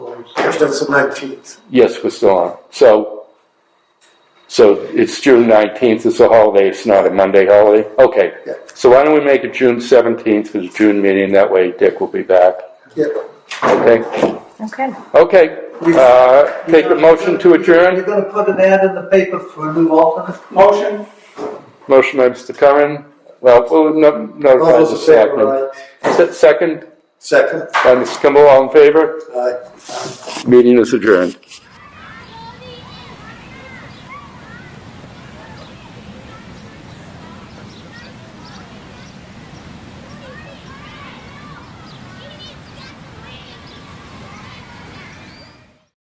Yes, that's the nineteenth. Yes, we're still on. So, so it's June nineteenth, it's a holiday, it's not a Monday holiday? Okay. Yeah. So why don't we make it June seventeenth for the June meeting, that way Dick will be back, Yeah. okay? Okay. Okay, uh, take a motion to You're adjourn, gonna put an ad in the paper for a new alternate? Motion? motion by Mr. Curran, well, we'll no- All notify those the in favor, selectmen. aye. Se- Second, Second, by Mr. Kimball, all in favor? aye. Meeting is adjourned.